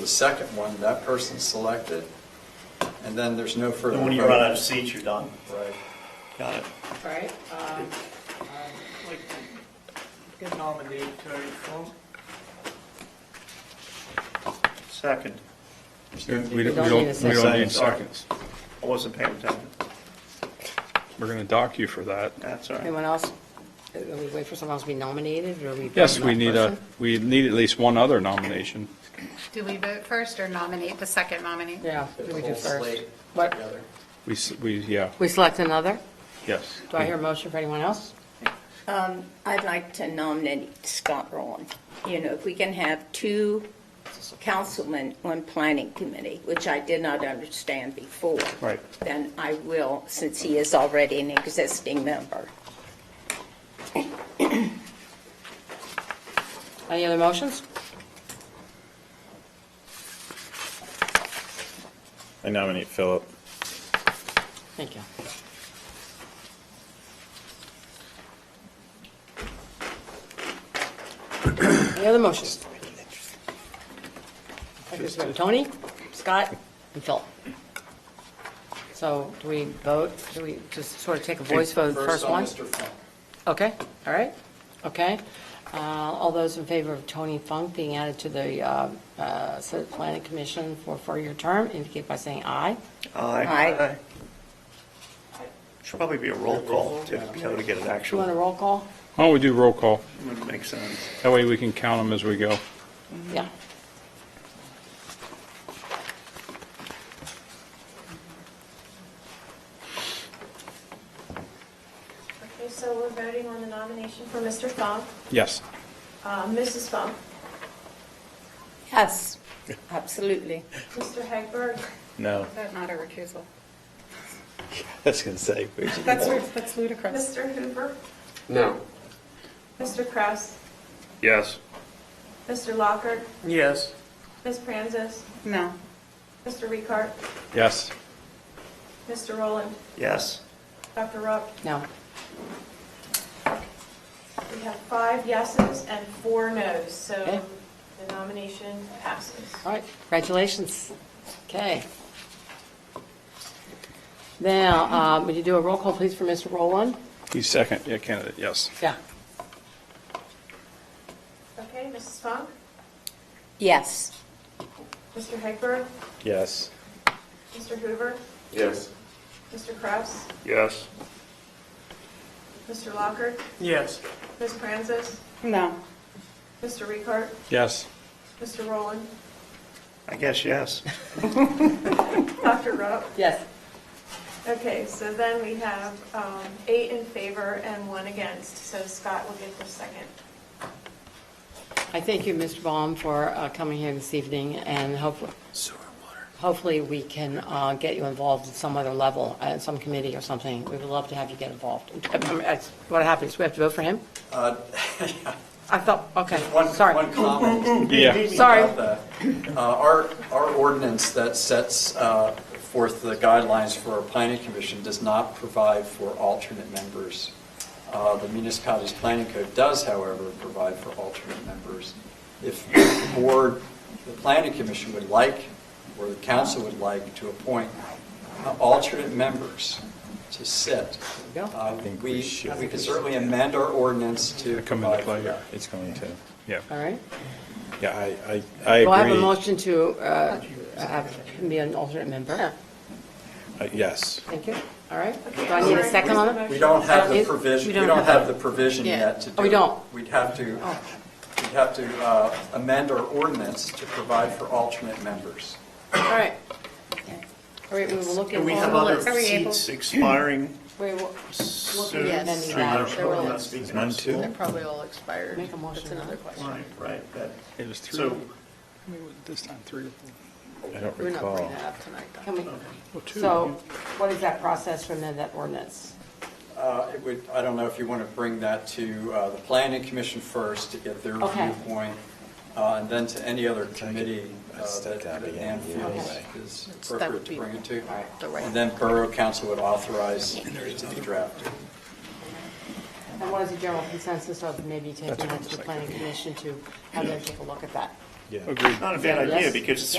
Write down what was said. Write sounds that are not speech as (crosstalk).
The second one, that person's selected, and then there's no further. And when you vote. run out of seats, you're done. Right. Got it. Right, um, I'd like to get nominated Terry Funk. Second. We don't, we don't need a don't we don't second. need seconds. I wasn't paying attention. We're going to dock you for that. That's all right. anyone else, Uh, are we wait for someone else to be nominated, or are we? voting Yes, we that need a, person? we need at least one other nomination. Do we vote first or nominate the second nominee? Yeah, Get we the do whole first. slate What, together. We, s- we, yeah, we select another? yes. Do I hear a motion for anyone else? I'd like to nominate Scott Rowland. You know, if we can have two councilmen on planning committee, which I did not understand before. Right. Then I will, since he is already an existing member. Any other motions? I nominate Philip. Thank you. Any other motions? I guess we have Tony, Scott, and Phil. So do we vote? Do we just sort of take a voice vote, the first one? First on Mr. Funk. Okay, all right, okay. Uh, All those in favor of Tony Funk being added to the uh, uh, City Planning Commission for a four-year term indicate by saying aye. Aye. Should probably be a roll call to be able to get an Do you want a actual, roll call? Why don't we do roll call? would make sense. That way we can count them as we go. Yeah. Okay, so we're voting on the nomination for Mr. Funk, Yes. Uh, Mrs. Funk, Yes, absolutely. Mr. Hagberg, No, Vote not a recusal. that's going to say. who's it? That's, ri- that's ludicrous. Mr. Hoover. No. Mr. Kraus, Yes. Mr. Lockhart, Yes. Ms. Pranzis, No. Mr. Ricart, Yes. Mr. Rowland, Yes. Dr. Rupp. No. We have five yeses and four noes, Okay. so the nomination passes. All right, congratulations. Okay. Now, um, would you do a roll call, please, for Mr. Rowland? He's second, yeah, candidate, yes. Yeah. Okay, Mrs. Funk, Yes. Mr. Hagberg, Yes. Mr. Hoover, Yes. Mr. Kraus, Yes. Mr. Lockhart, Yes. Ms. Pranzis, No. Mr. Ricart, Yes. Mr. Rowland, I guess yes. Dr. Rupp. Yes. Okay, so then we have um, eight in favor and one against, so Scott will get the second. I thank you, Mr. Baum, for uh, coming here this evening, and hopefully, hopefully we can uh, get you involved at some other level, at some committee or something. We would love to have you get involved. I mean, that's What happens, we have to vote for him? Uh, (laughs) I thought, okay, One, sorry. one comment. Yeah. Sorry. about that. Uh, Our, our ordinance that sets uh, forth the guidelines for our planning commission does not provide for alternate members. Uh, The municipality's planning code does, however, provide for alternate members. If the board, the planning commission would like, or the council would like to appoint uh, alternate members to sit, There you go. uh, think we we, should. we can certainly amend our ordinance to Come into provide for play, that. yeah. It's going to. Yeah. All right. Yeah, I, I, I Well, I have a agree. motion to uh, have him be an alternate member. Uh, Yes. Thank you. All right. Do I need a Sorry, second on where's the it? motion? We don't have Uh, the it- provision, we we don't don't have have that. the provision Yeah. yet to do. Oh, we it. don't? Oh. We'd have to, we'd have to uh, amend our ordinance to provide for alternate members. All right. All right, we will look at. And we have all- other Are we able- seats expiring We will soon. Should Yes. Yes. we- There will- not speaking Mine of- too? Probably all expired. make a motion on it. Right, right. that- It was three. So This time, three or four. I don't We're not bringing recall. that up tonight, though. Can we- Well, two. So what is that process to amend that ordinance? Uh, It would, I don't know if you want to bring that to uh, the planning commission first to get their Okay. viewpoint, uh, and then to any other committee uh, Let's that take that that again, Ann yeah, feels anyway. is that appropriate would to be bring it to. right. The And then borough council would authorize it to be drafted. And what is the general consensus of maybe taking what that I'm to the thinking. planning commission to have them take a look at that? Yeah. Agreed. Not a bad idea, because it's sort